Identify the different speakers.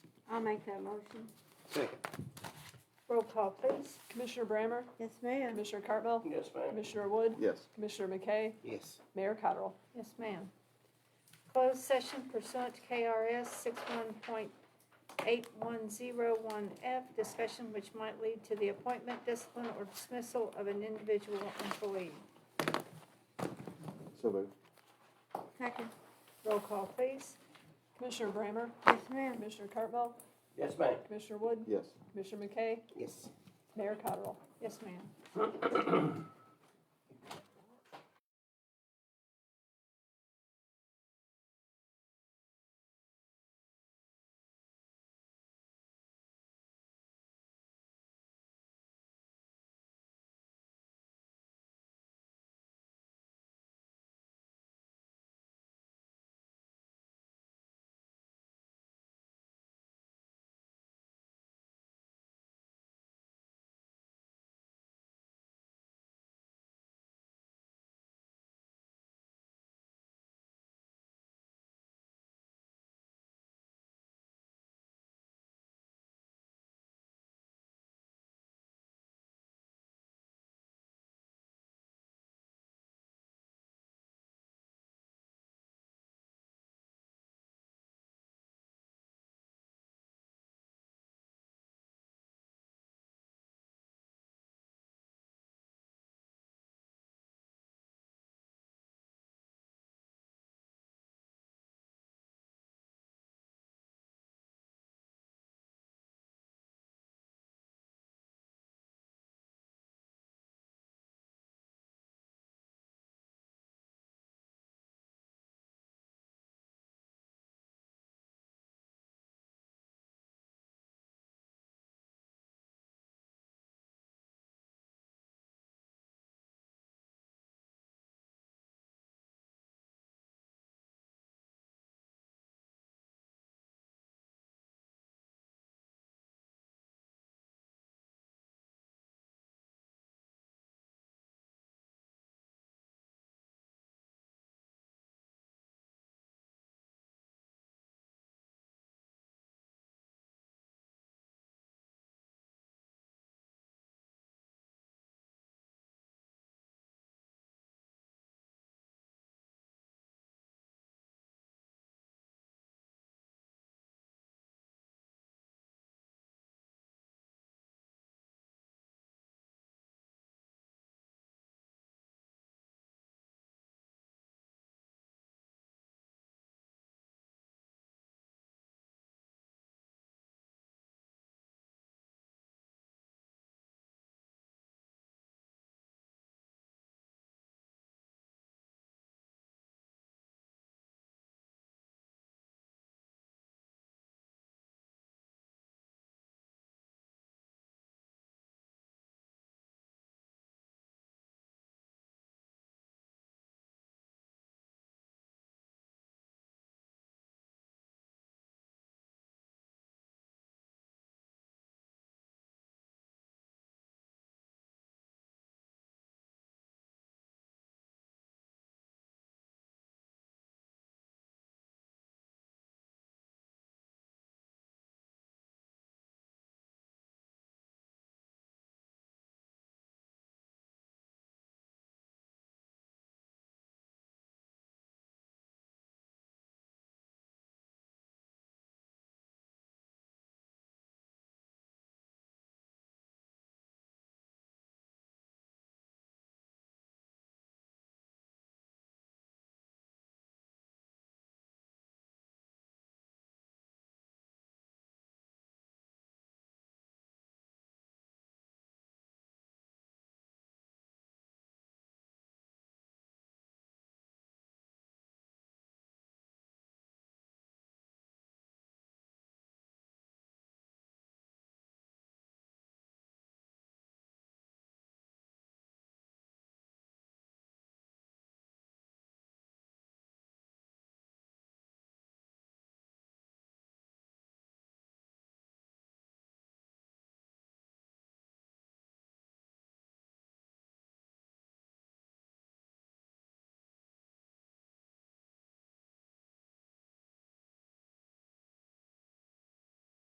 Speaker 1: I'll make that motion.
Speaker 2: Second.
Speaker 3: Roll call, please.
Speaker 4: Commissioner Brammer?
Speaker 1: Yes, ma'am.
Speaker 4: Commissioner Cartwell?
Speaker 2: Yes, ma'am.
Speaker 4: Commissioner Wood?
Speaker 5: Yes.
Speaker 4: Commissioner McKay?
Speaker 2: Yes.
Speaker 4: Mayor Cottrell?
Speaker 3: Yes, ma'am. Closed session pursuant to KRS six one point eight one zero one F, discussion which might lead to the appointment, discipline, or dismissal of an individual employee.
Speaker 5: So moved.
Speaker 1: Second.
Speaker 3: Roll call, please.
Speaker 4: Commissioner Brammer?
Speaker 1: Yes, ma'am.
Speaker 4: Commissioner Cartwell?
Speaker 2: Yes, ma'am.
Speaker 4: Commissioner Wood?
Speaker 5: Yes.
Speaker 4: Commissioner McKay?
Speaker 2: Yes.
Speaker 4: Mayor Cottrell?
Speaker 3: Yes, ma'am.